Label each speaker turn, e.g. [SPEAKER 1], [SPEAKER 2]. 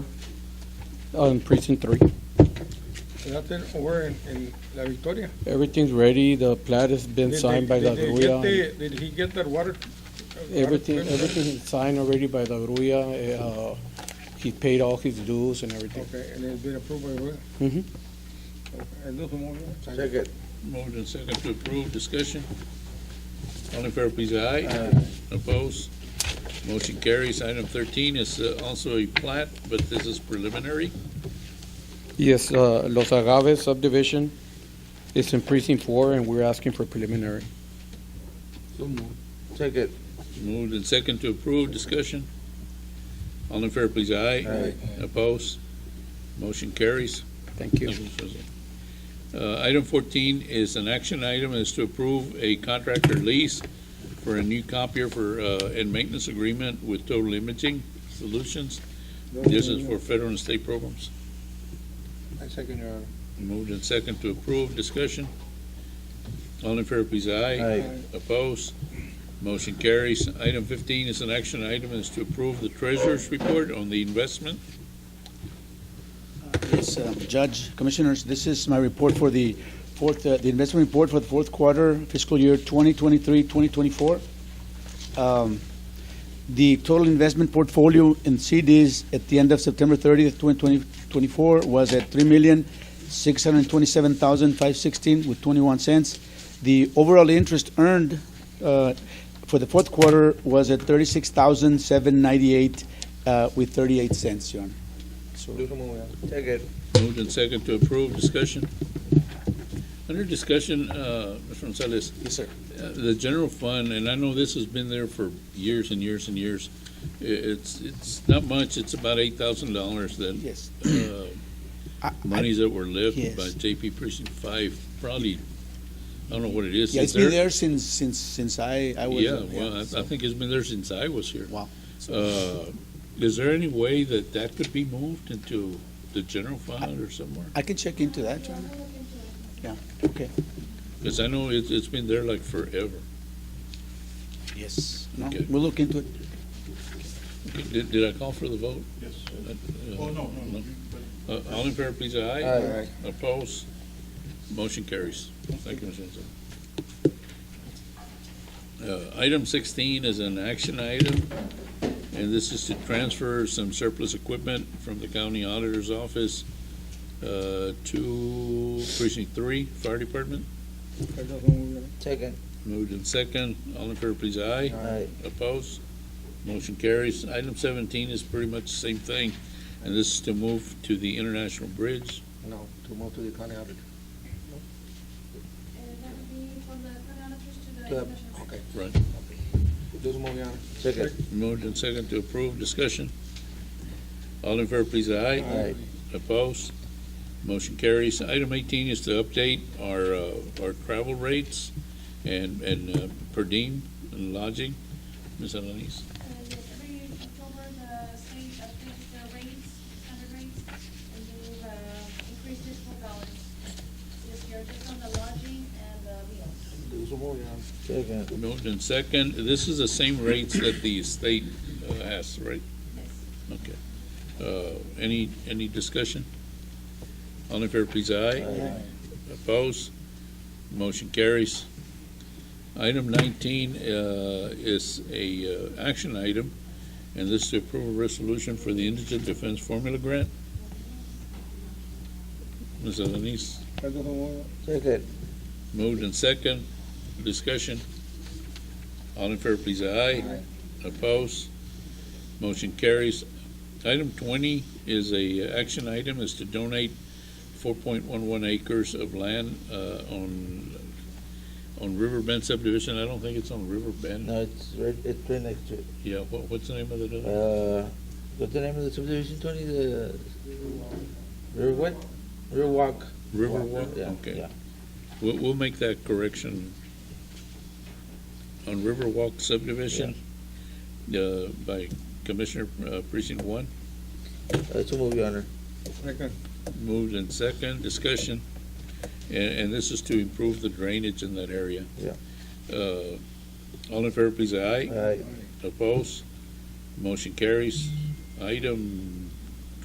[SPEAKER 1] on precinct three.
[SPEAKER 2] And out there over in, in La Victoria.
[SPEAKER 1] Everything's ready, the plat has been
[SPEAKER 2] Did they-
[SPEAKER 1] signed by the
[SPEAKER 2] did they get
[SPEAKER 1] gruya.
[SPEAKER 2] the- Did he get that water? uh,
[SPEAKER 1] Everything,
[SPEAKER 2] water permit?
[SPEAKER 1] everything is signed already by the gruya, uh, he paid all his dues and everything.
[SPEAKER 2] Okay, and it's been approved by Roy?
[SPEAKER 1] Mhm.
[SPEAKER 2] And those who want it, second.
[SPEAKER 3] Second.
[SPEAKER 4] Moved and second to approve, discussion. All in favor, please, say aye. Opposed? Motion carries. Item thirteen is uh, also a plat, but this is preliminary.
[SPEAKER 1] Yes, uh, Los Agaves subdivision is in precinct four and we're asking for preliminary.
[SPEAKER 3] Second.
[SPEAKER 4] Moved and second to approve, discussion. All in favor, please, say aye. Opposed? Motion carries.
[SPEAKER 1] Thank you.
[SPEAKER 4] Uh, Item fourteen is an action item, is to approve a contractor lease for a new copier for, uh, and maintenance agreement with Total Imaging Solutions. This is for federal and state programs.
[SPEAKER 2] I second your.
[SPEAKER 4] Moved and second to approve, discussion. All in favor, please, aye.
[SPEAKER 3] Aye.
[SPEAKER 4] Opposed? Motion carries. Item fifteen is an action item, is to approve the treasurer's report on the investment.
[SPEAKER 5] Yes, um, Judge, Commissioners, this is my report for the fourth, uh, the investment report for the fourth quarter fiscal year 2023, 2024. Um, The total investment portfolio in CDs at the end of September 30th, 2024 was at $3,627,516 with 21 cents. The overall interest earned uh, for the fourth quarter was at $36,798 uh, with 38 cents, Your Honor. So-
[SPEAKER 3] Second.
[SPEAKER 4] Moved and second to approve, discussion. Under discussion, uh, Mr. Gonzalez,
[SPEAKER 5] Yes, sir.
[SPEAKER 4] uh, the general fund, and I know this has been there for years and years and years. I- It's, it's not much, it's about eight thousand dollars that,
[SPEAKER 5] Yes.
[SPEAKER 4] uh,
[SPEAKER 5] I- I-
[SPEAKER 4] monies that were left
[SPEAKER 5] Yes.
[SPEAKER 4] by JP Precinct Five, probably, I don't know what it is.
[SPEAKER 5] Yeah,
[SPEAKER 4] Is
[SPEAKER 5] it's been
[SPEAKER 4] there-
[SPEAKER 5] there since, since, since I, I was.
[SPEAKER 4] Yeah,
[SPEAKER 5] uh,
[SPEAKER 4] well, I- I
[SPEAKER 5] so-
[SPEAKER 4] think it's been there since I was here.
[SPEAKER 5] Wow.
[SPEAKER 4] Uh, Is there any way that that could be moved into the general fund or somewhere?
[SPEAKER 5] I can check into that, John. Yeah, okay,
[SPEAKER 4] Because I know it's, it's been there like forever.
[SPEAKER 5] yes, no,
[SPEAKER 4] Okay.
[SPEAKER 5] we'll look into it.
[SPEAKER 4] Did, did I call for the vote?
[SPEAKER 6] Yes.
[SPEAKER 4] Uh,
[SPEAKER 6] Oh, no, no, no.
[SPEAKER 4] uh, All in favor, please, aye.
[SPEAKER 3] Aye.
[SPEAKER 4] Opposed? Motion carries. Thank you, Mr. Enzo. Uh, Item sixteen is an action item, and this is to transfer some surplus equipment from the county auditor's office uh, to precinct three, fire department.
[SPEAKER 2] I don't know.
[SPEAKER 3] Second.
[SPEAKER 4] Moved in second. All in favor, please, aye.
[SPEAKER 3] Aye.
[SPEAKER 4] Opposed? Motion carries. Item seventeen is pretty much the same thing, and this is to move to the international bridge.
[SPEAKER 3] No, to move to the county auditor.
[SPEAKER 7] And that would be from the chronometers to the
[SPEAKER 3] Yep.
[SPEAKER 7] commissioner.
[SPEAKER 3] Okay.
[SPEAKER 4] Right.
[SPEAKER 3] Those move, Your Honor. Second.
[SPEAKER 4] Moved in second to approve. Discussion. All in favor, please, aye.
[SPEAKER 3] Aye.
[SPEAKER 4] Opposed? Motion carries. Item eighteen is to update our, uh, our travel rates and, and, uh, per diem and lodging. Ms. Alanis?
[SPEAKER 7] And then every October, the state updates the rates, standard rates, and they've uh, increased it four dollars this year, just on the lodging and the meals.
[SPEAKER 3] Those move, Your Honor. Second.
[SPEAKER 4] Moved in second. This is the same rates that the state uh, has, right?
[SPEAKER 7] Yes.
[SPEAKER 4] Okay. Uh, Any, any discussion? All in favor, please, aye. Opposed? Motion carries. Item nineteen uh, is a uh, action item, and this is to approve a resolution for the Indigent Defense Formula Grant. Ms. Alanis,
[SPEAKER 2] I don't know.
[SPEAKER 3] Second.
[SPEAKER 4] moved and second. Discussion. All in favor, please, aye. Opposed? Motion carries. Item twenty is a action item, is to donate four point one one acres of land, uh, on, on River Bend subdivision. I don't think it's on River Bend.
[SPEAKER 3] No, it's right, it's right next to, it.
[SPEAKER 4] Yeah, what, what's the name of the, other-
[SPEAKER 3] uh, what's the name of the subdivision, Tony? The River what? Riverwalk.
[SPEAKER 4] Riverwalk?
[SPEAKER 3] Yeah,
[SPEAKER 4] Okay.
[SPEAKER 3] yeah.
[SPEAKER 4] We'll, we'll make that correction on Riverwalk subdivision, uh, by Commissioner uh, Precinct One.
[SPEAKER 3] Uh, so move, Your Honor.
[SPEAKER 2] Second.
[SPEAKER 4] Moved and second, discussion, and, and this is to improve the drainage in that area.
[SPEAKER 3] Yeah.
[SPEAKER 4] Uh, All
[SPEAKER 3] Uh,
[SPEAKER 4] in favor, please, aye.
[SPEAKER 3] Aye.
[SPEAKER 4] Opposed? Motion carries. Item